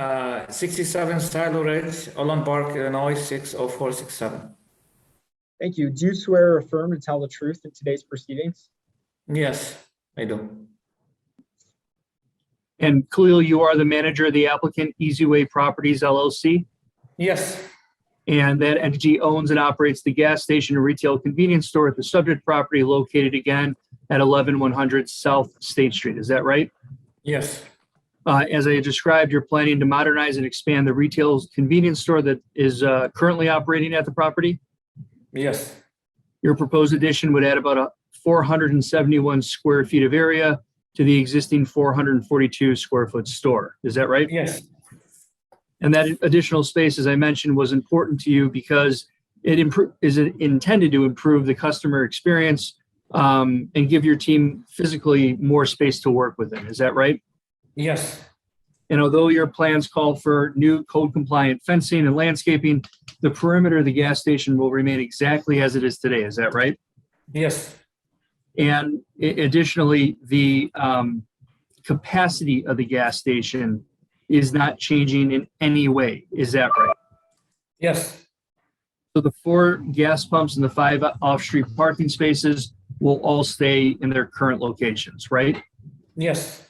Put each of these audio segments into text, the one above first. Uh, 67 Silo Ridge, Olin Park, Illinois, 60467. Thank you. Do you swear or affirm to tell the truth in today's proceedings? Yes, I do. And Khalil, you are the manager of the applicant Easy Way Properties LLC, Yes, and that entity owns and operates the gas station and retail convenience store at the subject property located again at 11100 South State Street. Is that right? yes, Uh, As I described, you're planning to modernize and expand the retail convenience store that is uh, currently operating at the property. yes, Your proposed addition would add about a 471 square feet of area to the existing 442 square foot store. Is that right? yes, And that additional space, as I mentioned, was important to you because it impro- is it intended to improve the customer experience um, and give your team physically more space to work within. Is that right? yes, And although your plans call for new code compliant fencing and landscaping, the perimeter of the gas station will remain exactly as it is today. Is that right? yes, And i- additionally, the um, capacity of the gas station is not changing in any way. Is that right? yes, So the four gas pumps and the five off-street parking spaces will all stay in their current locations, right? yes,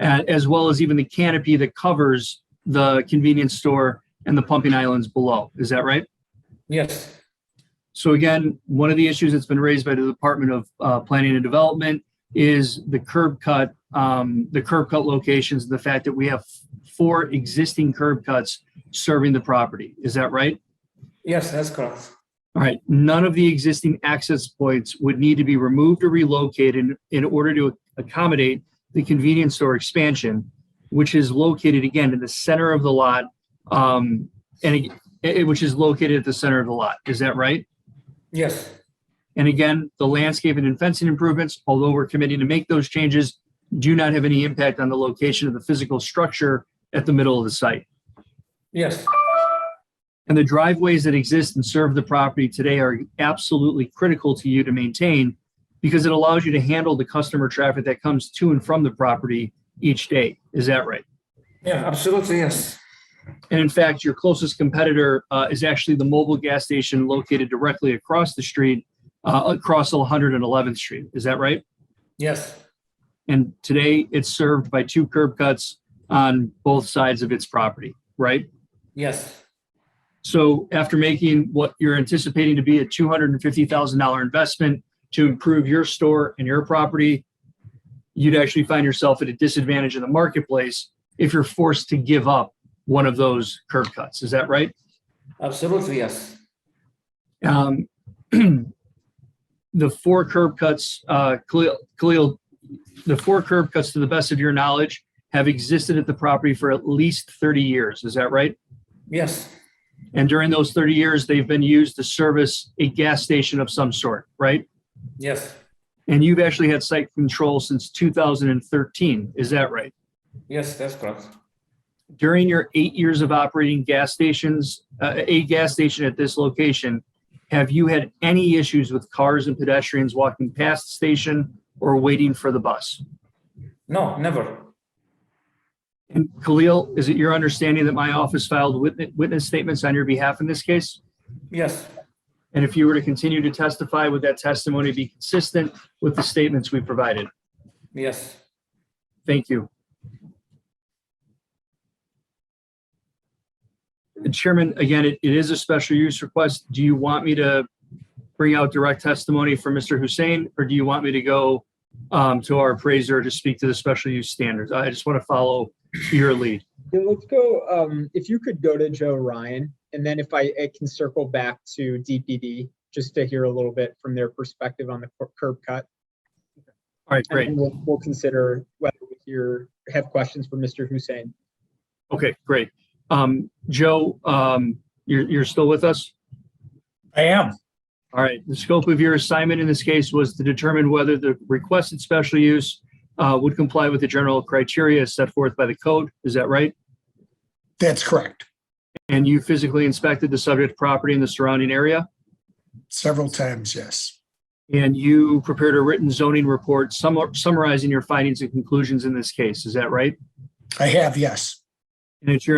A- As well as even the canopy that covers the convenience store and the pumping islands below. Is that right? yes, So again, one of the issues that's been raised by the Department of uh, Planning and Development is the curb cut, um, the curb cut locations, and the fact that we have four existing curb cuts serving the property. Is that right? yes, that's correct. All right, none of the existing access points would need to be removed or relocated in order to accommodate the convenience store expansion, which is located again in the center of the lot, um, and it- it- which is located at the center of the lot. Is that right? Yes, And again, the landscaping and fencing improvements, although we're committing to make those changes, do not have any impact on the location of the physical structure at the middle of the site. yes, And the driveways that exist and serve the property today are absolutely critical to you to maintain because it allows you to handle the customer traffic that comes to and from the property each day. Is that right? yeah, absolutely, yes, And in fact, your closest competitor uh, is actually the mobile gas station located directly across the street, uh, across 111th Street. Is that right? yes, And today it's served by two curb cuts on both sides of its property, right? yes, So after making what you're anticipating to be a $250,000 investment to improve your store and your property, you'd actually find yourself at a disadvantage in the marketplace if you're forced to give up one of those curb cuts. Is that right? absolutely, yes, Um, the four curb cuts, uh, Khalil, Khalil, the four curb cuts, to the best of your knowledge, have existed at the property for at least 30 years. Is that right? yes, And during those 30 years, they've been used to service a gas station of some sort, right? yes, And you've actually had site control since 2013. Is that right? yes, that's correct. During your eight years of operating gas stations, uh, a gas station at this location, have you had any issues with cars and pedestrians walking past the station or waiting for the bus? No, never. And Khalil, is it your understanding that my office filed witness, witness statements on your behalf in this case? Yes, And if you were to continue to testify, would that testimony be consistent with the statements we provided? yes, Thank you. And Chairman, again, it, it is a special use request. Do you want me to bring out direct testimony from Mr. Hussein? Or do you want me to go um, to our appraiser to speak to the special use standards? I just want to follow your lead. Yeah, let's go, um, if you could go to Joe Ryan, and then if I, I can circle back to DPD, just to hear a little bit from their perspective on the cur- curb cut. All right, and great. then We'll, we'll consider whether we hear, have questions for Mr. Hussein. Okay, great. Um, Joe, um, you're, you're still with us? I am. All right, the scope of your assignment in this case was to determine whether the requested special use uh, would comply with the general criteria set forth by the code. Is that right? That's correct. And you physically inspected the subject property and the surrounding area, Several times, yes. and you prepared a written zoning report summa- summarizing your findings and conclusions in this case. Is that right? I have, yes. And it's your